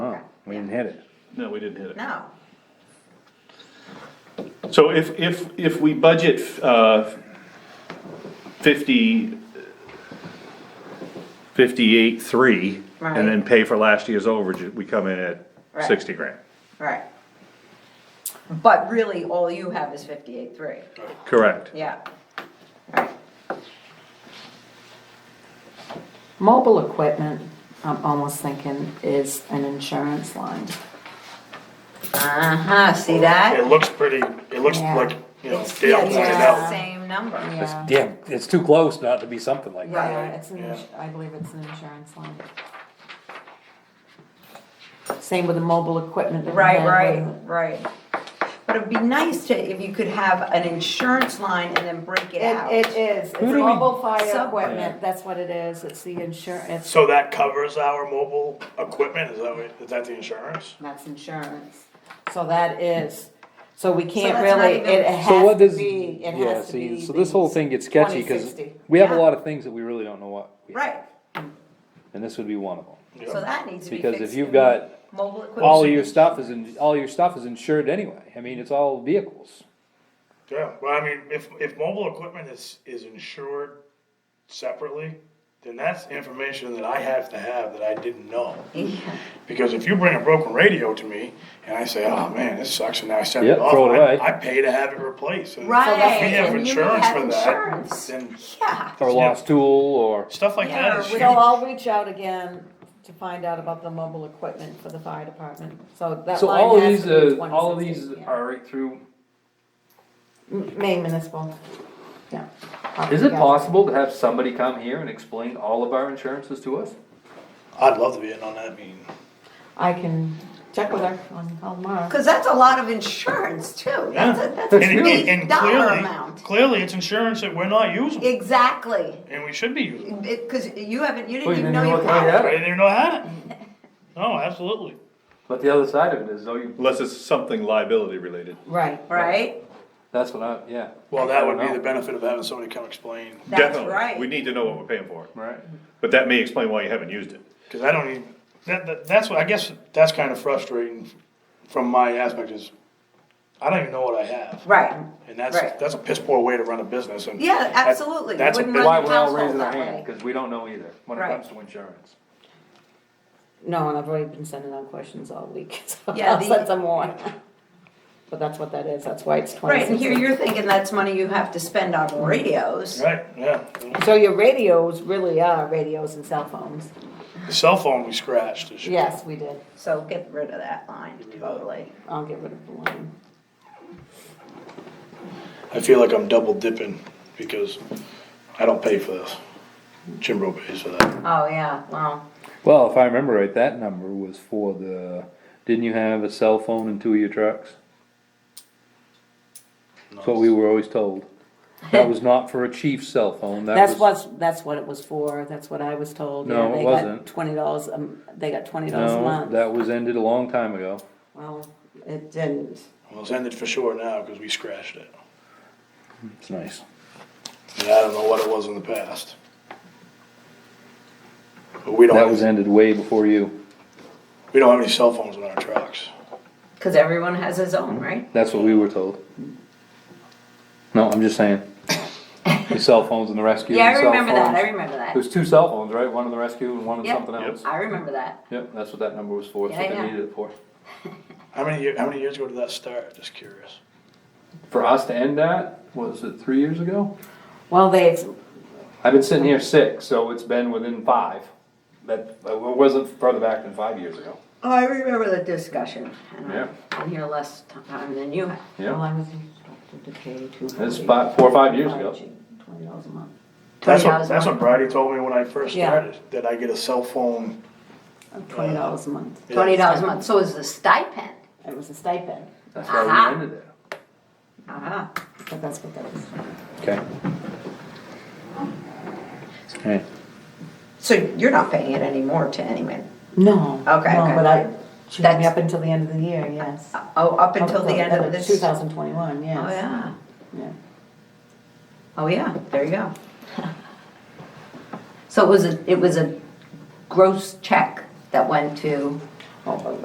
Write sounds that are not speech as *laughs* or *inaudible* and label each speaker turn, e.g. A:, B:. A: Oh, hit it.
B: No, we didn't hit it.
C: No,
B: So if, if, if we budget, uh, fifty, fifty-eight, three, and then
C: Right.
B: pay for last year's overage, we come in at
C: Right.
B: sixty grand.
C: right. But really, all you have is fifty-eight, three,
B: Correct.
C: yeah. Right.
D: Mobile equipment, I'm almost thinking is an insurance line.
C: Uh-huh, see that?
E: It looks pretty, it looks
D: Yeah.
E: like, you know,
C: It's-
E: Oh, Dale
C: yeah, it's
E: pointed
C: just
D: out.
C: the Same number,
D: Yeah,
A: Yeah, it's too close not to be something like that.
D: yeah, it's an,
E: yeah.
D: ins- I believe it's an insurance line. Same with the mobile equipment. that we
C: right,
D: had,
C: right,
D: wasn't
C: right. But it'd be nice to, if you could have an insurance line and then break it out.
D: It, it is, it's
A: do we-
D: mobile fire
C: Sub-
D: equipment, that's what it is, it's the insurance,
E: So that covers our mobile equipment, is that what, is that the insurance?
D: that's insurance. So that is, so we can't
C: that's not
D: really,
C: even-
D: it
A: So
D: has
A: what
D: to
A: does,
D: be, it
A: yeah,
D: has to
A: see,
D: be.
A: so this whole thing gets sketchy, cause
D: 2060.
A: we have a
C: Yeah.
A: lot of things that we really don't know what. we-
C: Right,
A: And this would be one of them.
C: so that needs to be fixed.
A: Because if you've got
C: Mobile
A: all of
C: equipment,
A: your stuff is in, all your stuff is insured anyway. I mean, it's all vehicles.
E: Yeah, well, I mean, if, if mobile equipment is, is insured separately, then that's information that I have to have that I didn't know. Because if you bring a broken radio to me and I say, oh man, this sucks, and now I send
A: Yep,
E: it off,
A: throw it away.
E: I, I pay to have it replaced. And
C: Right,
E: If we have
C: and you
E: insurance
C: have
E: for
C: insurance.
E: that, then
C: yeah,
A: Or lost tool or,
E: stuff like
C: Yeah,
E: that is
C: we
E: huge.
D: So I'll reach out again to find out about the mobile equipment for the fire department, so that
A: so
D: line
A: all of these,
D: has to be
A: uh,
D: 2016.
A: all of these
D: yeah.
A: are right through.
D: M- Maine municipal, yeah.
A: Is it
D: Yeah.
A: possible to have somebody come here and explain all of our insurances to us?
E: I'd love to be in on that meeting.
D: I can check with her on how tomorrow.
C: cause that's a lot of insurance too, that's a, that's a
E: And, and-
C: huge
E: and
C: dollar
E: clearly,
C: amount.
E: clearly it's insurance that we're not using,
C: Exactly,
E: and we should be using.
C: It- cause you haven't, you
A: Well,
C: didn't even
A: then
C: know
A: you
C: you
A: look right
C: had
A: at
E: I
C: it.
E: didn't even know I had it. No, absolutely.
A: But the other side of it is, though, you,
B: Unless it's something liability related.
D: Right,
C: right?
A: that's what I, yeah.
E: Well, that would
A: I
E: be
A: don't
E: the
A: know.
E: benefit of having somebody come explain,
C: That's
B: Definitely.
C: right.
B: We need to know what we're paying for,
A: Right.
B: but that may explain why you haven't used it.
E: cause I don't even, that, that, that's what, I guess, that's kinda frustrating from my aspect is, I don't even know what I have.
C: Right,
E: And that's,
C: Right.
E: that's a piss poor way to run a business and.
C: Yeah,
E: that-
C: absolutely. You
E: That's a
C: wouldn't
E: big-
C: run
A: Why we're all
C: household
A: raising our
C: that
A: hand,
C: way.
A: cause we don't know either, when it
C: Right.
A: comes to insurance.
D: no, and I've already been sending out questions all week, *laughs* so
C: Yeah,
D: I'll
C: the-
D: send some more. But that's what that is, that's why it's twenty
C: Right,
D: sixteen.
C: and here you're thinking that's money you have to spend on radios.
E: Right, yeah.
D: So your radios really are radios and cell phones,
E: The cell phone we scratched this year.
D: yes, we did,
C: So get rid of that line totally.
D: I'll get rid of the line.
E: I feel like I'm double dipping because I don't pay for this. Jimbo pays for that.
C: Oh, yeah, wow.
A: Well, if I remember right, that number was for the, didn't you have a cell phone in two of your trucks? That's what we were always told. That was not for a chief's cell phone, that was.
D: That's what's, that's what it was for, that's what I was told.
A: No,
D: Yeah,
A: it
D: they got
A: wasn't.
D: Twenty dollars, um, they got twenty dollars a
A: No,
D: month.
A: that was ended a long time ago.
D: Well, it didn't.
E: Well, it's ended for sure now because we scratched it.
A: It's nice.
E: And I don't know what it was in the past. But we don't,
A: That was
E: have-
A: ended way before you.
E: we don't have any cell phones in our trucks.
C: Cause everyone has his own, right?
A: That's what we were told. No, I'm just saying. The cell phones in the rescue.
C: Yeah,
A: and
C: I
A: cell
C: remember that,
A: phones.
C: I remember that.
A: There's two cell phones, right? One in the rescue and one in
C: Yep.
A: something else.
C: I remember that.
A: Yep, that's what that number was for, that's
C: Yeah,
A: what they
C: yeah.
A: needed it for.
E: How many, year- how many years ago did that start? Just curious.
A: For us to end that, was it three years ago?
D: Well, they,
C: Oh,
A: I've been sitting here six, so it's been within five. That, uh, it wasn't further back than five years ago.
C: Oh, I remember the discussion. and I-
A: Yeah.
C: I'm here less time than you have.
D: well,
A: Yeah,
D: I was instructed to pay two hundred.
A: that's five, four or five years ago.
D: Twenty dollars a month.
E: That's
C: $20
E: what,
C: a
E: that's what
C: month.
E: Bridie told me when I first
D: Yeah.
E: started, that I get a cell phone.
D: Twenty
C: uh,
D: dollars a month.
C: Twenty dollars a month, so is the stipend.
D: It was a stipend,
A: That's why
C: Aha.
A: we ended it.
C: Uh-huh.
D: but that's what that was.
A: Okay. Okay.
C: So you're not paying it anymore to anyone?
D: No.
C: Okay,
D: No,
C: okay.
D: but I, she had me
C: That's-
D: up until the end of the year, yes.
C: Oh, up until the end of this?
D: Two thousand twenty-one, yes.
C: Oh, yeah.
D: Yeah.
C: Oh, yeah, there you go. So it was a, it was a gross check that went to
D: Oh, but